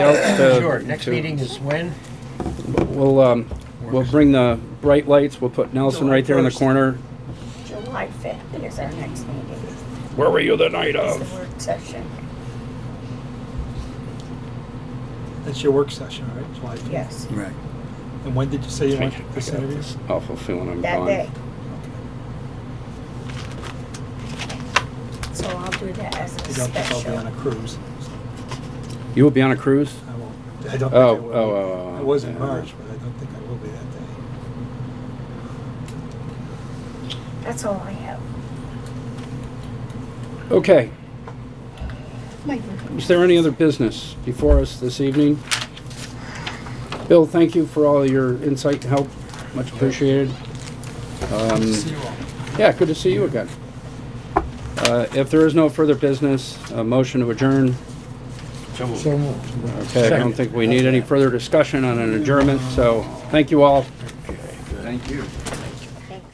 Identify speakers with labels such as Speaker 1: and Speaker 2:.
Speaker 1: out the.
Speaker 2: Sure, next
Speaker 1: to-
Speaker 2: meeting is when?
Speaker 1: We'll, um, we'll bring the bright lights, we'll put Nelson right there in the corner.
Speaker 3: July 5th is our next meeting,
Speaker 1: Where were you the night
Speaker 3: is the work session.
Speaker 4: That's your work session, right? July 5th?
Speaker 3: Yes,
Speaker 5: Right.
Speaker 4: And when did you say you went to this interview?
Speaker 1: Awful Oh, feeling I'm
Speaker 3: that day.
Speaker 1: gone.
Speaker 3: So I'll do that as a
Speaker 4: I don't think I'll be on a
Speaker 3: special.
Speaker 4: cruise. so
Speaker 1: You will be on a cruise?
Speaker 4: I won't. I don't think
Speaker 1: Oh,
Speaker 4: I
Speaker 1: oh, oh,
Speaker 4: will.
Speaker 1: oh,
Speaker 4: I was in
Speaker 1: yeah.
Speaker 4: March, but I don't think I will be that day.
Speaker 3: That's all I have.
Speaker 1: Okay. Is there any other business before us this evening? Bill, thank you for all your insight and help. Much appreciated. Um,
Speaker 4: See you all.
Speaker 1: Yeah, good to see you again. Uh, If there is no further business, a motion to adjourn. Okay, I don't think we need any further discussion on an adjournment, so thank you all.
Speaker 5: Thank you.